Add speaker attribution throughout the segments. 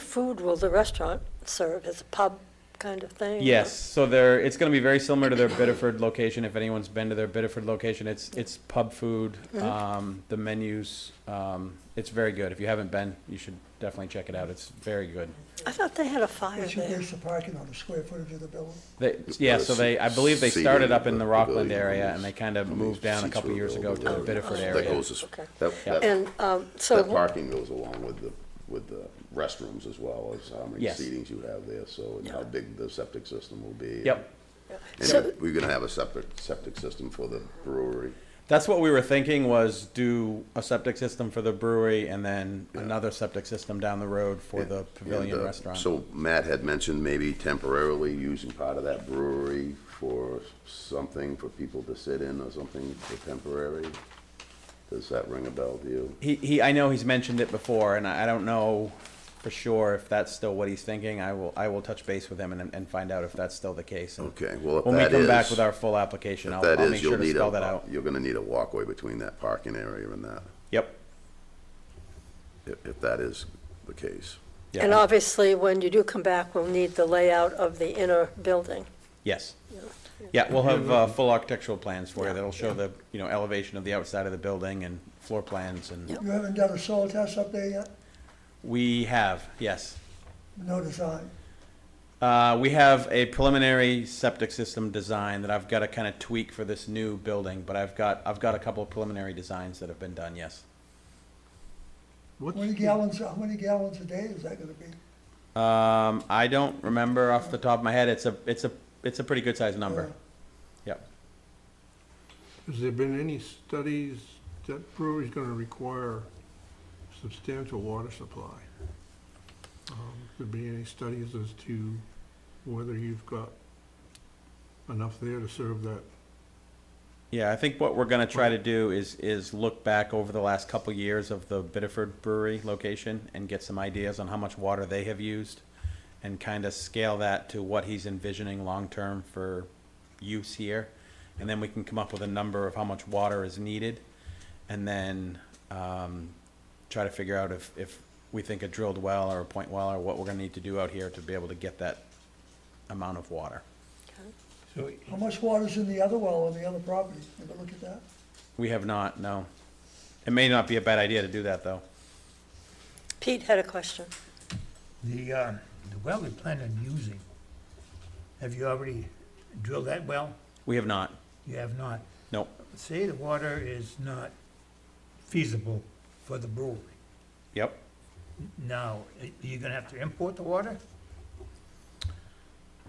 Speaker 1: Food will the restaurant serve as a pub kind of thing?
Speaker 2: Yes, so they're, it's gonna be very similar to their Biddeford location, if anyone's been to their Biddeford location, it's, it's pub food, um, the menus, um, it's very good, if you haven't been, you should definitely check it out, it's very good.
Speaker 1: I thought they had a fire
Speaker 3: What's your,
Speaker 1: there.
Speaker 3: what's the parking on the square footage of the building?
Speaker 2: They, yeah, so they, I believe they started up in the Rockland area, and they kinda moved down a couple years ago to the Biddeford
Speaker 4: That
Speaker 2: area.
Speaker 4: goes, as-
Speaker 1: Okay.
Speaker 4: that, that,
Speaker 1: And um, so,
Speaker 4: that parking goes along with the, with the restrooms as well as how many
Speaker 2: Yes.
Speaker 4: seatings you have there, so, and how big the septic system will be.
Speaker 2: Yep.
Speaker 4: And
Speaker 1: So-
Speaker 4: we're gonna have a separate septic system for the brewery.
Speaker 2: That's what we were thinking was do a septic system for the brewery and then another septic system down the road for the pavilion
Speaker 4: And, uh,
Speaker 2: restaurant.
Speaker 4: So Matt had mentioned maybe temporarily using part of that brewery for something for people to sit in or something for temporary. Does that ring a bell to you?
Speaker 2: He, he, I know he's mentioned it before, and I I don't know for sure if that's still what he's thinking. I will, I will touch base with him and, and find out if that's still the case. And
Speaker 4: Okay, well, if
Speaker 2: When we
Speaker 4: that
Speaker 2: come back
Speaker 4: is-
Speaker 2: with our full application,
Speaker 4: If
Speaker 2: I'll,
Speaker 4: that
Speaker 2: I'll make
Speaker 4: is,
Speaker 2: sure
Speaker 4: you'll
Speaker 2: to
Speaker 4: need
Speaker 2: spell that
Speaker 4: a,
Speaker 2: out.
Speaker 4: you're gonna need a walkway between that parking area and that,
Speaker 2: Yep.
Speaker 4: if, if that is the case.
Speaker 2: Yeah.
Speaker 1: and obviously, when you do come back, we'll need the layout of the inner building.
Speaker 2: Yes. Yeah, we'll have, uh, full architectural plans for you that'll show the, you know, elevation of the outside of the building and floor plans and
Speaker 3: You haven't done a soil test up there yet?
Speaker 2: we have, yes.
Speaker 3: No design?
Speaker 2: Uh, we have a preliminary septic system design that I've got to kind of tweak for this new building, but I've got, I've got a couple of preliminary designs that have been done, yes.
Speaker 3: How many gallons, how many gallons a day is that gonna be?
Speaker 2: Um, I don't remember off the top of my head. It's a, it's a, it's a pretty good sized number. Yep.
Speaker 5: Has there been any studies that brewery's gonna require substantial water supply? Um, Could be any studies as to whether you've got enough there to serve that?
Speaker 2: Yeah, I think what we're gonna try to do is, is look back over the last couple years of the Biddeford Brewery location and get some ideas on how much water they have used and kind of scale that to what he's envisioning long-term for use here. And then we can come up with a number of how much water is needed and then, um, try to figure out if, if we think a drilled well or a point well or what we're gonna need to do out here to be able to get that amount of water.
Speaker 6: So
Speaker 3: How much water's in the other well on the other property? Ever look at that?
Speaker 2: We have not, no. It may not be a bad idea to do that, though.
Speaker 1: Pete had a question.
Speaker 6: the, uh, the well we plan on using, have you already drilled that well?
Speaker 2: We have not.
Speaker 6: You have not.
Speaker 2: Nope.
Speaker 6: Say the water is not feasible for the brewery.
Speaker 2: Yep.
Speaker 6: Now, are you gonna have to import the water?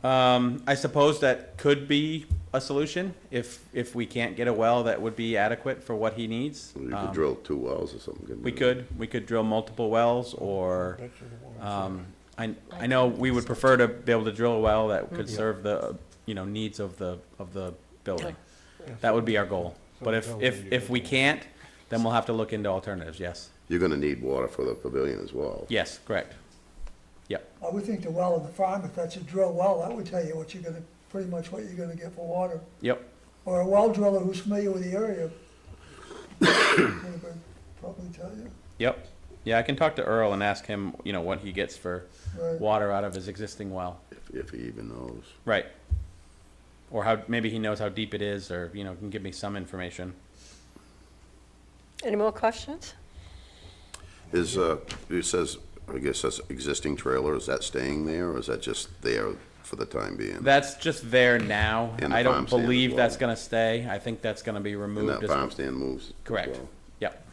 Speaker 2: Um, I suppose that could be a solution if if we can't get a well that would be adequate for what he needs.
Speaker 4: You
Speaker 2: Um,
Speaker 4: could drill two wells or something. couldn't
Speaker 2: We
Speaker 4: you?
Speaker 2: could we could drill multiple wells, or um, I I know we would prefer to be able to drill a well that could serve the you know needs of the of the building. That would be our goal. But if if if we can't, then we'll have to look into alternatives. Yes.
Speaker 4: You're gonna need water for the pavilion as well.
Speaker 2: Yes. Correct. Yep.
Speaker 3: I would think the well on the farm, if that's a drill well, that would tell you what you're gonna, pretty much what you're gonna get for water.
Speaker 2: Yep.
Speaker 3: Or a well driller who's familiar with the area would probably tell you.
Speaker 2: Yep. Yeah, I can talk to Earl and ask him, you know, what he gets for
Speaker 3: Right.
Speaker 2: water out of his existing well.
Speaker 4: If, if he even knows.
Speaker 2: Right. Or how, maybe he knows how deep it is, or, you know, can give me some information.
Speaker 1: Any more questions?
Speaker 4: Is, uh, it says, I guess that's existing trailer, is that staying there or is that just there for the time being?
Speaker 2: That's just there now.
Speaker 4: And the
Speaker 2: I
Speaker 4: farm
Speaker 2: don't
Speaker 4: stand as
Speaker 2: believe that's
Speaker 4: well.
Speaker 2: gonna stay. I think that's gonna be
Speaker 4: And
Speaker 2: removed.
Speaker 4: that
Speaker 2: as-
Speaker 4: farm stand moves? as
Speaker 2: Correct.
Speaker 4: well?
Speaker 2: Yep.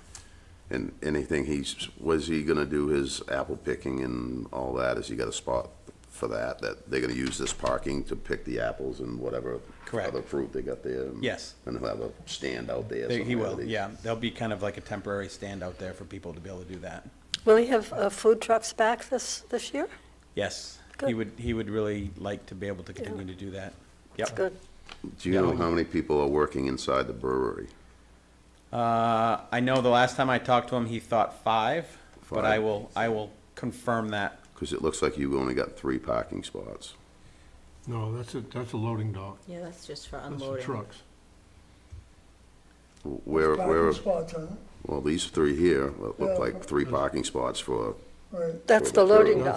Speaker 4: And anything he's, was he gonna do his apple picking and all that? Has he got a spot for that? That they're gonna use this parking to pick the apples and whatever
Speaker 2: Correct.
Speaker 4: other fruit they got there?
Speaker 2: Yes.
Speaker 4: And he'll have a stand out there
Speaker 2: They-
Speaker 4: somewhere.
Speaker 2: He will,
Speaker 4: that
Speaker 2: yeah. There'll be kind of like a temporary stand out there for people to be able to do that.
Speaker 1: Will we have uh, food trucks back this, this year?
Speaker 2: Yes. He
Speaker 1: Good.
Speaker 2: would, he would really like to be able to continue to do that.
Speaker 1: That's
Speaker 2: Yep.
Speaker 1: good.
Speaker 4: Do you know how many people are working inside the brewery?
Speaker 2: Uh, I know the last time I talked to him, he thought five, but I
Speaker 4: Five.
Speaker 2: will, I will confirm that.
Speaker 4: Because it looks like you've only got three parking spots.
Speaker 5: No, that's a, that's a loading dock.
Speaker 7: Yeah, that's just for
Speaker 5: That's for
Speaker 7: unloading.
Speaker 5: trucks.
Speaker 4: Where, where,
Speaker 3: Parking spots on it,
Speaker 4: well, these three here look
Speaker 3: Yeah.
Speaker 4: like three parking spots for
Speaker 3: right.
Speaker 1: That's the loading dock.